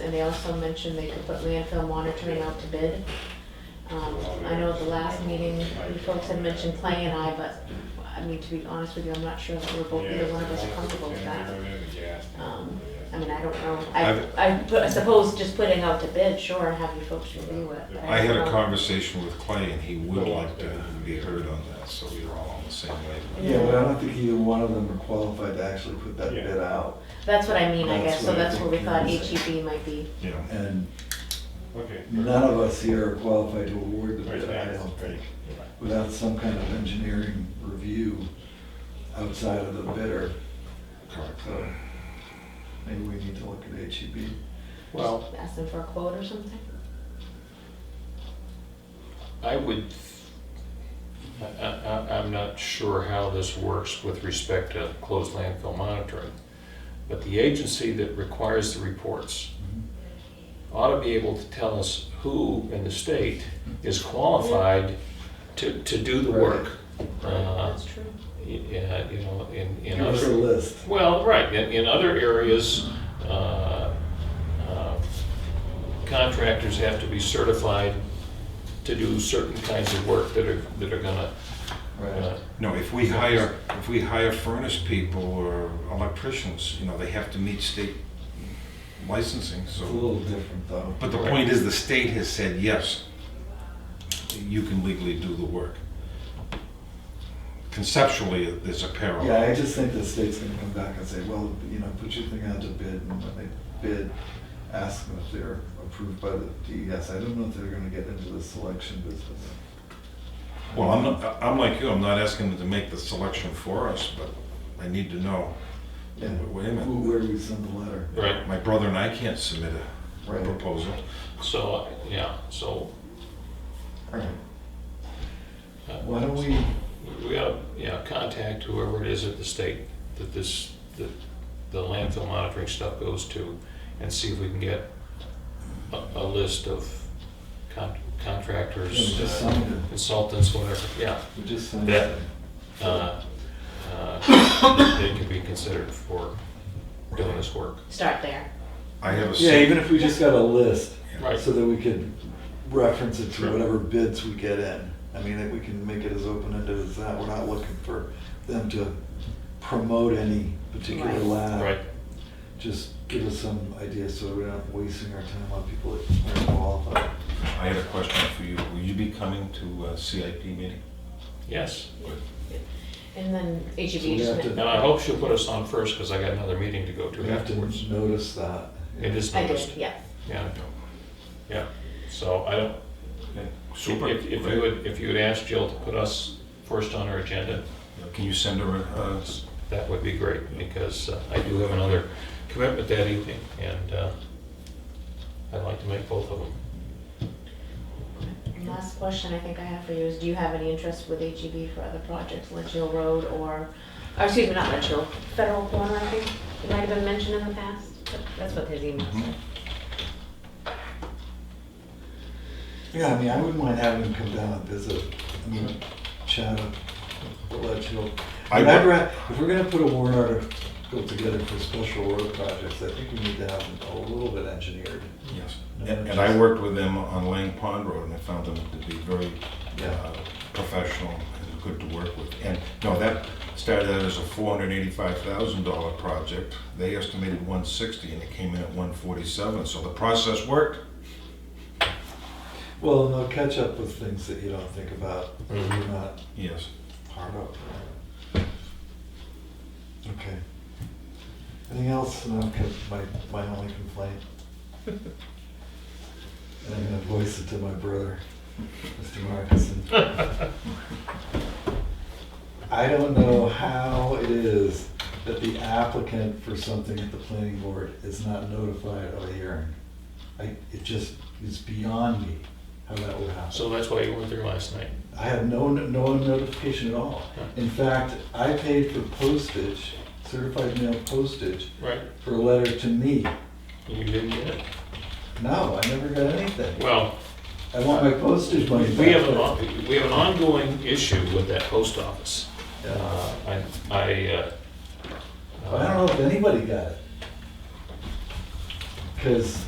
And they also mentioned they could put landfill monitoring out to bid. Um, I know at the last meeting, you folks had mentioned Clay and I, but, I mean, to be honest with you, I'm not sure that we're both, either one of us are comfortable with that. Um, I mean, I don't know, I've- I, I put- I suppose just putting out to bid, sure, and have you folks review it. but I had don't a know. conversation with Clay and he would like to be heard on that, so we were all on the same wavelength. Yeah, but I don't think either one of them are qualified to actually put that bid out. That's what I mean, I That's guess, so what I that's where we think thought you're saying. HEB might be. You know, And Okay. none of us here are qualified to award the Right, bid, I yeah, don't right. think, without some kind of engineering review outside of the bidder. correct. So maybe we need to look at E HEB. Well, Ask them for a quote or something? I would, I, I, I'm not sure how this works with respect to closed landfill monitoring, but the agency that requires the reports ought to be able to tell us who in the state is qualified to, to do the work. Uh, That's true. Yeah, you know, in, in Give us a other, list. well, right, in, in other areas, uh, uh, contractors have to be certified to do certain kinds of work that are, that are gonna, uh, Right. No, if we hire, if we hire furnace people or electricians, you know, they have to meet state licensing, It's a so. little different though. But the point is, the state has said, yes, you can legally do the work. Conceptually, there's a parallel. Yeah, I just think the state's gonna come back and say, well, you know, put your thing out to bid, and when they bid, ask them if they're approved by the DES. I don't know if they're gonna get into the selection business. Well, I'm, not- I'm like you, I'm not asking them to make the selection for us, but I need to know. Yeah. Wait a minute. Who- Where we send the letter. right, My brother and I can't submit a Right. proposal. so, yeah, so. All right. uh, Why don't we, We ought, yeah, contact whoever it is at the state that this, that the landfill monitoring stuff goes to and see if we can get a, a list of con- Yeah, contractors, just uh, sign it. consultants, whatever, yeah. we just send That- it? uh, uh, They can be considered for doing this work. Start there. I have a. Yeah, sec- even if we just got a list, Right. so that we could reference it Sure. to whatever bids we get in. I mean, that we can make it as open-ended as that. We're not looking for them to promote any particular Right. lab. Right, just give us some ideas so we're not wasting our time on people that aren't qualified. I had a question for you. Will you be coming to a CIP meeting? yes. And then So we HEB have just, to- And I hope she'll put us on first because I got another meeting to go We to have to afterwards. notice that. It is I did, noticed, yeah. yeah, yeah. So I don't, Super. If, if you would, if you would ask Jill to put us first on her agenda, Can you send her a, a- that would be great, because uh, I do have another commitment that evening, and uh, I'd like to make both of them. And Last question I think I have for you is, do you have any interest with HEB for other projects, Ledge Hill Road or, or excuse me, not Ledge Hill, Federal Corner, I think, it might have been mentioned in the past, but that's what his email said. Yeah, I mean, I wouldn't mind having them come down and visit, I mean, chat up, the ledge hill. I And I'd would- ra- if we're gonna put a warrant article together for special road projects, I think we need to have them a little bit engineered. Yes. And and I worked with them on Lang Pond Road and I found them to be very Yeah. uh, professional and good to work with. And, no, that started out as a four hundred eighty-five thousand dollar project. They estimated one sixty and it came in at one forty-seven, so the process worked. Well, and they'll catch up with things that you don't think about, or you're Mhm. not Yes. Hard up. Okay. Anything else? No, 'cause my, my only complaint. And I'm gonna voice it to my brother, Mr. Markison. I don't know how it is that the applicant for something at the planning board is not notified of a hearing. I, it just is beyond me how that would happen. So that's why you weren't there last night. I have no, no notification at all. In fact, I paid for postage, certified mail postage, Right. for a letter to me. You didn't get it? No, I never got anything. Well, I want my postage we money back. have an, on- we have an ongoing issue with that post office. Yeah. Uh, I, I, uh, I don't know if anybody got it. Because